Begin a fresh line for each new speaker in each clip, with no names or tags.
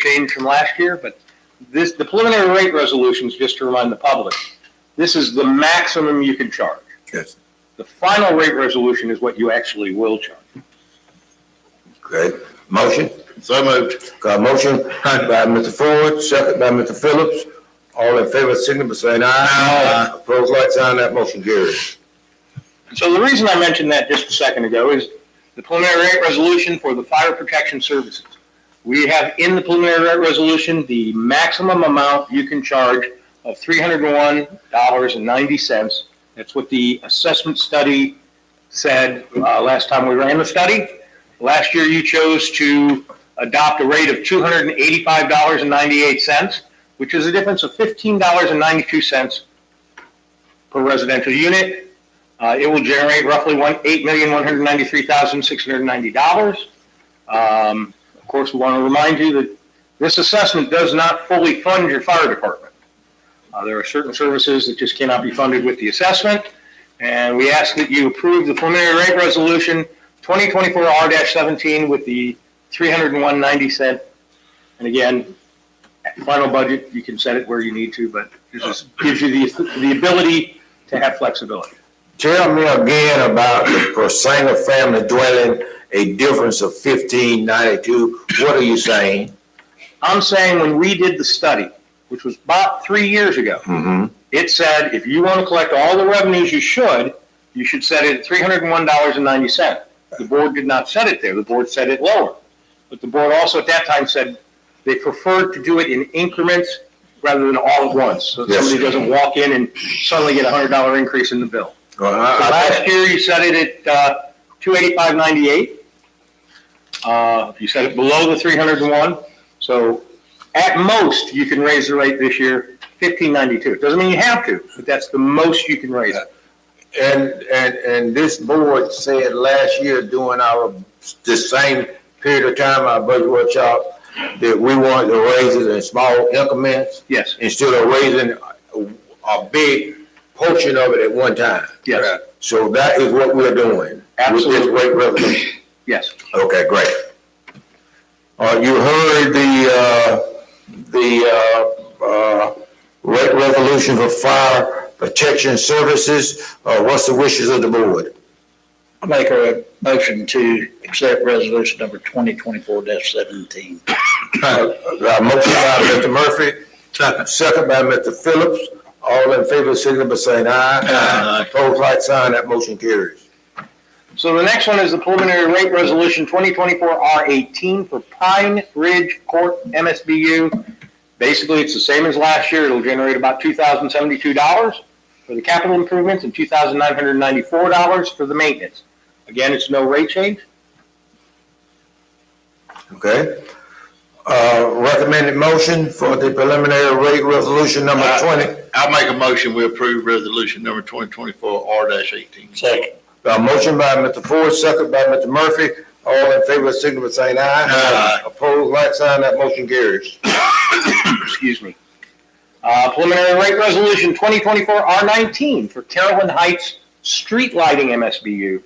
change from last year, but this, the preliminary rate resolutions, just to remind the public, this is the maximum you can charge.
Yes.
The final rate resolution is what you actually will charge.
Okay, motion,
So moved.
got a motion by Mr. Ford, second by Mr. Phillips. All in favor, signify by saying aye. Opposed, like sign, that motion carries.
So the reason I mentioned that just a second ago is the preliminary rate resolution for the fire protection services. We have in the preliminary rate resolution, the maximum amount you can charge of three hundred and one dollars and ninety cents. That's what the assessment study said, uh, last time we ran the study. Last year, you chose to adopt a rate of two hundred and eighty-five dollars and ninety-eight cents, which is a difference of fifteen dollars and ninety-two cents per residential unit. Uh, it will generate roughly one, eight million, one hundred ninety-three thousand, six hundred ninety dollars. Um, of course, we want to remind you that this assessment does not fully fund your fire department. Uh, there are certain services that just cannot be funded with the assessment, and we ask that you approve the preliminary rate resolution twenty twenty-four R seventeen with the three hundred and one ninety cent. And again, at the final budget, you can set it where you need to, but this is, gives you the, the ability to have flexibility.
Tell me again about the per single family dwelling, a difference of fifteen ninety-two. What are you saying?
I'm saying when we did the study, which was about three years ago,
Mm-hmm.
it said if you want to collect all the revenues you should, you should set it at three hundred and one dollars and ninety cent. The board did not set it there. The board set it lower. But the board also at that time said they preferred to do it in increments rather than all at once. So that
Yes.
somebody doesn't walk in and suddenly get a hundred dollar increase in the bill. So Uh, Last year, you set it at, uh, two eighty-five ninety-eight. Uh, you set it below the three hundred and one, so at most, you can raise the rate this year fifteen ninety-two. Doesn't mean you have to, but that's the most you can raise it.
And, and, and this board said last year during our, this same period of time, our budget workshop, that we wanted to raise it in small increments
Yes,
instead of raising a, a big portion of it at one time.
yes,
So that is what we're doing. With
Absolutely.
this rate resolution.
yes.
Okay, great. Uh, you heard the, uh, the, uh, uh, rate resolution for fire protection services. Uh, what's the wishes of the board?
I make a motion to accept resolution number twenty twenty-four seventeen.
Uh, Motion by Mr. Murphy. Second. by Mr. Phillips. All in favor, signal by saying aye.
Aye.
Pose like sign, that motion carries.
So the next one is the preliminary rate resolution twenty twenty-four R eighteen for Pine Ridge Court MSBU. Basically, it's the same as last year. It'll generate about two thousand seventy-two dollars for the capital improvements and two thousand nine hundred ninety-four dollars for the maintenance. Again, it's no rate change.
Okay? Uh, recommended motion for the preliminary rate resolution number
Aye.
twenty.
I make a motion, we approve resolution number twenty twenty-four R eighteen.
Second.
Uh, motion by Mr. Ford, second by Mr. Murphy. All in favor, signal by saying aye.
Aye.
Opposed, like sign, that motion carries.
excuse me. Uh, preliminary rate resolution twenty twenty-four R nineteen for Carolyn Heights Street Lighting MSBU.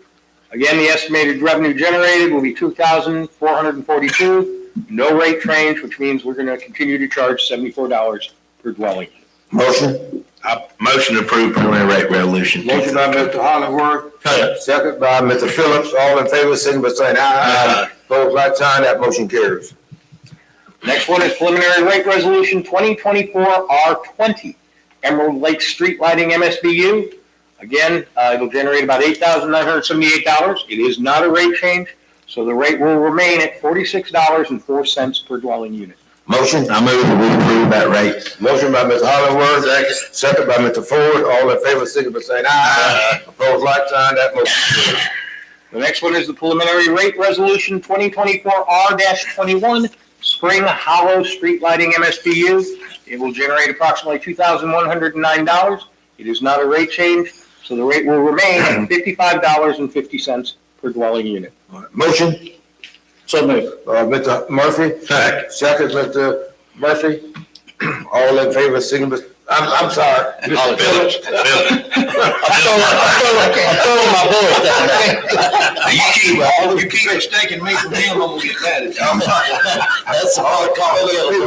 Again, the estimated revenue generated will be two thousand four hundred and forty-two, no rate change, which means we're gonna continue to charge seventy-four dollars per dwelling.
Motion?
I motion to approve preliminary rate resolution.
Motion by Mr. Hollingworth, second by Mr. Phillips. All in favor, signal by saying aye.
Aye.
Pose like sign, that motion carries.
Next one is preliminary rate resolution twenty twenty-four R twenty, Emerald Lake Street Lighting MSBU. Again, uh, it'll generate about eight thousand nine hundred seventy-eight dollars. It is not a rate change, so the rate will remain at forty-six dollars and four cents per dwelling unit.
Motion? I move to approve that rate. Motion by Ms. Hollingworth, second by Mr. Ford, all in favor, signify by saying aye. Opposed, like sign, that motion carries.
The next one is the preliminary rate resolution twenty twenty-four R twenty-one, Spring Hollow Street Lighting MSBU. It will generate approximately two thousand one hundred and nine dollars. It is not a rate change, so the rate will remain at fifty-five dollars and fifty cents per dwelling unit.
Motion,
So moved.
uh, Mr. Murphy? Second. Second, Mr. Murphy, all in favor, signify I'm, I'm sorry.
Holly Phillips. Phillips.
I throw my bullets
You keep, you keep mistaking me for him, I'm gonna get mad at you.
That's all I call it.